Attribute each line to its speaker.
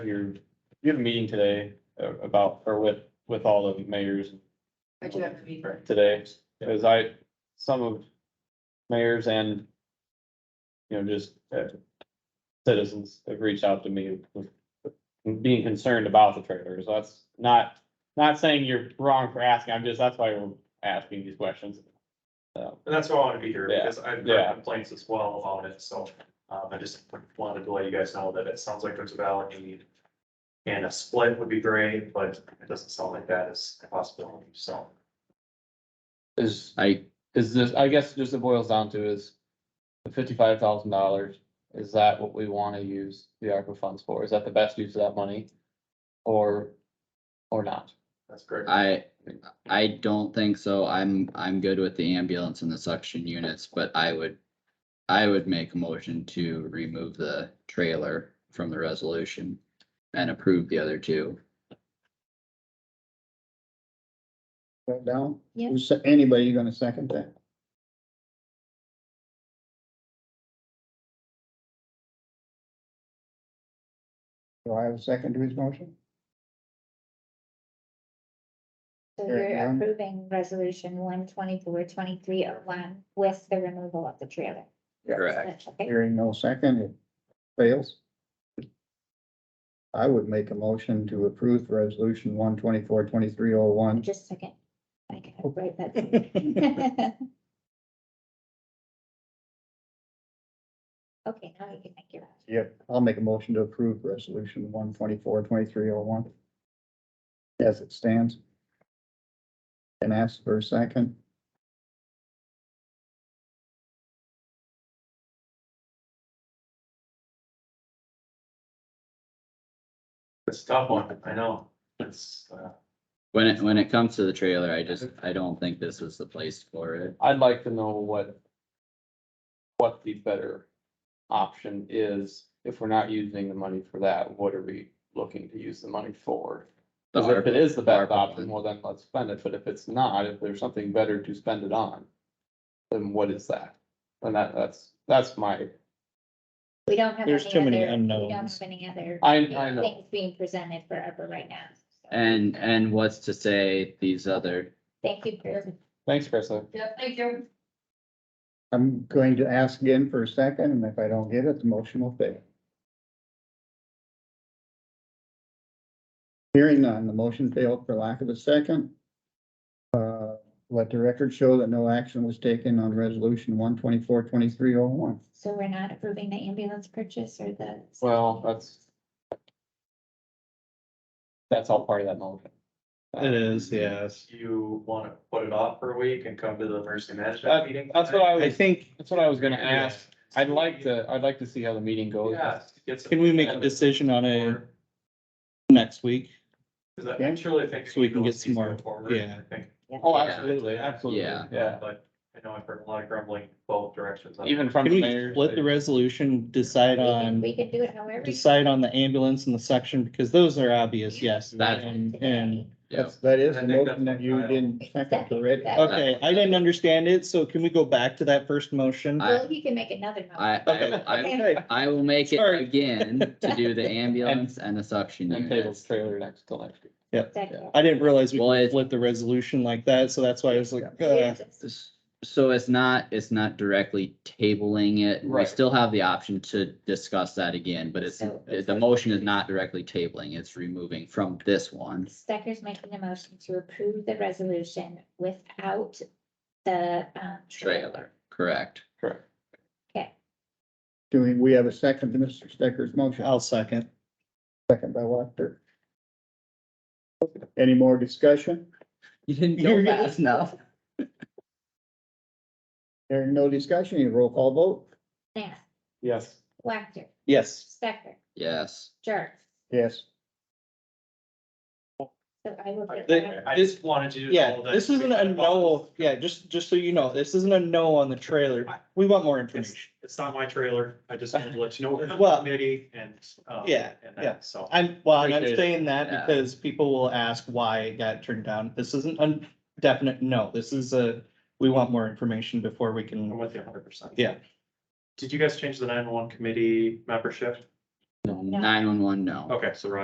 Speaker 1: your, you had a meeting today uh, about, or with, with all the mayors
Speaker 2: I do have to be first.
Speaker 1: today, because I, some of mayors and, you know, just uh, citizens have reached out to me with- with being concerned about the trailers. That's not, not saying you're wrong for asking, I'm just, that's why we're asking these questions. So,
Speaker 3: And that's why I want to be here,
Speaker 1: Yeah,
Speaker 3: because I've
Speaker 1: yeah.
Speaker 3: heard complaints as well about it, so, um, I just wanted to let you guys know that it sounds like there's a valid need. And a split would be great, but it doesn't sound like that is a possibility, so.
Speaker 1: is, I, is this, I guess just it boils down to is the fifty-five thousand dollars, is that what we want to use the ARPA funds for? Is that the best use of that money? Or, or not?
Speaker 3: That's great.
Speaker 4: I, I don't think so. I'm, I'm good with the ambulance and the suction units, but I would, I would make a motion to remove the trailer from the resolution and approve the other two.
Speaker 5: That down?
Speaker 6: Yeah.
Speaker 5: Who's se- Anybody gonna second that? Do I have a second to his motion?
Speaker 6: So
Speaker 5: Sure,
Speaker 6: you're
Speaker 5: um,
Speaker 6: approving resolution one twenty-four, twenty-three oh one with the removal of the trailer.
Speaker 4: Correct.
Speaker 6: Okay,
Speaker 5: Hearing no second, it fails. I would make a motion to approve resolution one twenty-four twenty-three oh one.
Speaker 6: just a second. I can write that. down. Okay, now you can make your.
Speaker 5: Yep. I'll make a motion to approve resolution one twenty-four twenty-three oh one. As it stands. And ask for a second.
Speaker 3: It's a tough one, I know. It's, uh,
Speaker 4: When it, when it comes to the trailer, I just, I don't think this is the place for it.
Speaker 1: I'd like to know what what the better option is. If we're not using the money for that, what are we looking to use the money for?
Speaker 4: The
Speaker 1: Because if it
Speaker 4: ARPA
Speaker 1: is the best
Speaker 4: ARPA
Speaker 1: option,
Speaker 4: fund.
Speaker 1: well, then let's spend it, but if it's not, if there's something better to spend it on, then what is that? And that, that's, that's my,
Speaker 6: We don't have.
Speaker 7: There's
Speaker 6: any
Speaker 7: too many
Speaker 6: other- We don't
Speaker 7: unknowns.
Speaker 6: have any other.
Speaker 1: I- I know.
Speaker 6: Things being presented for ARPA right now. So,
Speaker 4: And, and what's to say these other,
Speaker 6: Thank you for
Speaker 1: thanks, Krista.
Speaker 2: Yep, thank you.
Speaker 5: I'm going to ask again for a second, and if I don't get it, the motion will fail. Hearing none, the motion failed for lack of a second. Uh, let the record show that no action was taken on resolution one twenty-four twenty-three oh one.
Speaker 6: So we're not approving the ambulance purchase or the.
Speaker 1: Well, that's that's all part of that motion.
Speaker 7: It is, yes.
Speaker 3: you want to put it off for a week and come to the emergency management
Speaker 1: That-
Speaker 3: meeting?
Speaker 1: That's what I
Speaker 7: I
Speaker 1: was,
Speaker 7: think,
Speaker 1: that's what I was gonna ask. I'd like to, I'd like to see how the meeting goes.
Speaker 3: Yeah. get some-
Speaker 7: can we make a decision on a next week?
Speaker 3: Because I truly think.
Speaker 7: So we can get some
Speaker 3: these go
Speaker 7: more-
Speaker 3: forward,
Speaker 7: yeah.
Speaker 3: I think,
Speaker 1: Oh,
Speaker 4: Yeah.
Speaker 1: absolutely, absolutely,
Speaker 4: Yeah.
Speaker 1: yeah.
Speaker 3: But I know I've heard a lot of grumbling both directions. on it.
Speaker 1: Even from
Speaker 7: Can
Speaker 1: the
Speaker 7: we
Speaker 1: mayor.
Speaker 7: split the resolution, decide
Speaker 6: We can-
Speaker 7: on,
Speaker 6: We can do it however. you
Speaker 7: decide on the ambulance and the section, because those are obvious, yes.
Speaker 4: That-
Speaker 7: And, and,
Speaker 4: yeah,
Speaker 5: That's, that is
Speaker 3: I
Speaker 5: the
Speaker 3: think
Speaker 5: motion
Speaker 3: that's
Speaker 5: that you
Speaker 3: what I-
Speaker 5: didn't second Uh, already.
Speaker 6: That-
Speaker 7: okay, I didn't understand it, so can we go back to that first motion?
Speaker 4: I-
Speaker 6: Well, you can make another. motion.
Speaker 4: I,
Speaker 7: Okay,
Speaker 4: I, I,
Speaker 7: okay.
Speaker 4: I will make it
Speaker 7: Sorry.
Speaker 4: again to do the ambulance and the suction
Speaker 1: And table
Speaker 4: units.
Speaker 1: trailer next till next year.
Speaker 6: Second.
Speaker 7: I didn't realize we
Speaker 4: Well, it-
Speaker 7: could flip the resolution like that, so that's why I was like, uh,
Speaker 6: Yes.
Speaker 4: S- So it's not, it's not directly tabling it. We
Speaker 1: Right.
Speaker 4: still have the option to discuss that again, but it's,
Speaker 6: So-
Speaker 4: the motion is not directly tabling, it's removing from this one.
Speaker 6: Stecker's making a motion to approve the resolution without the, um.
Speaker 4: Trailer, correct.
Speaker 1: Correct.
Speaker 5: Doing, we have a second to Mr. Stecker's motion.
Speaker 7: I'll second.
Speaker 5: Second by Wachter. Any more discussion?
Speaker 4: You didn't
Speaker 5: You're
Speaker 4: go
Speaker 5: gonna-
Speaker 4: fast enough.
Speaker 5: Hearing no discussion, you roll call vote?
Speaker 6: Nath,
Speaker 1: Yes.
Speaker 6: Wactor,
Speaker 7: Yes.
Speaker 6: Stecker,
Speaker 4: Yes.
Speaker 6: Jerks.
Speaker 5: Yes.
Speaker 6: So I will. get
Speaker 7: They-
Speaker 6: that.
Speaker 3: I just wanted you to.
Speaker 7: Yeah,
Speaker 3: know that
Speaker 7: this isn't a no, yeah, just, just so you know, this isn't a no on the trailer. We want more information.
Speaker 3: It's not my trailer. I just wanted to let you know we're in the
Speaker 7: Well-
Speaker 3: committee and. um,
Speaker 7: Yeah,
Speaker 3: and
Speaker 7: yeah.
Speaker 3: that, So.
Speaker 7: I'm, well, and I'm
Speaker 1: Appreciate it.
Speaker 7: saying
Speaker 4: Yeah.
Speaker 7: that because people will ask why it got turned down. This isn't a definite no. This is a, we want more information before we
Speaker 3: I'm
Speaker 7: can.
Speaker 3: with you hundred percent.
Speaker 7: Yeah.
Speaker 3: Did you guys change the nine one committee membership?
Speaker 4: Nine-one-one, no.
Speaker 3: Okay, so Roger